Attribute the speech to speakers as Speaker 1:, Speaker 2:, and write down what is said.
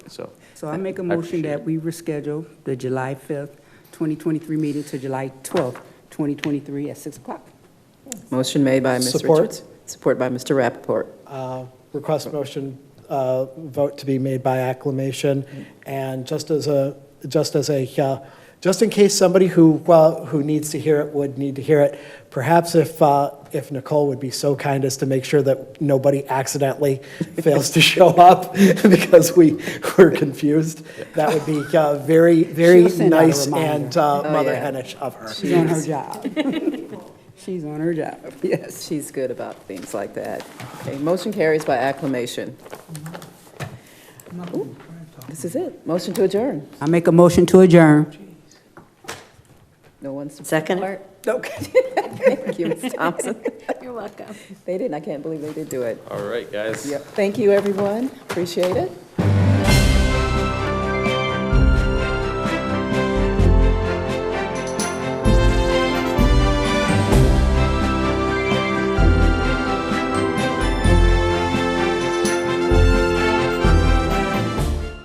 Speaker 1: So,
Speaker 2: So I make a
Speaker 1: I
Speaker 2: motion that we reschedule the July 5th, 2023 meeting to July 12th, 2023 at 6 o'clock.
Speaker 3: Motion made by Ms.
Speaker 4: Support.
Speaker 3: Richards. Support by Mr. Rappaport.
Speaker 4: Uh, Request motion, uh, vote to be made by acclamation. And just as a, just as a, uh, just in case somebody who, well, who needs to hear it would need to hear it, perhaps if, uh, if Nicole would be so kind as to make sure that nobody accidentally fails to show up because we were confused, that would be uh, very, very
Speaker 2: She'll send out a
Speaker 4: nice
Speaker 2: reminder.
Speaker 4: and uh,
Speaker 3: Oh,
Speaker 4: Mother
Speaker 3: yeah.
Speaker 4: Henish of her.
Speaker 2: She's on her job. She's on her job, yes.
Speaker 3: She's good about things like that. Okay, motion carries by acclamation. Ooh, This is it. Motion to adjourn.
Speaker 2: I make a motion to adjourn.
Speaker 3: No one's.
Speaker 5: Second?
Speaker 3: Okay. Thank you, Ms. Thompson.
Speaker 5: You're welcome.
Speaker 3: They didn't, I can't believe they did do it.
Speaker 1: all right, guys.
Speaker 3: Yep. Thank you, everyone. Appreciate it.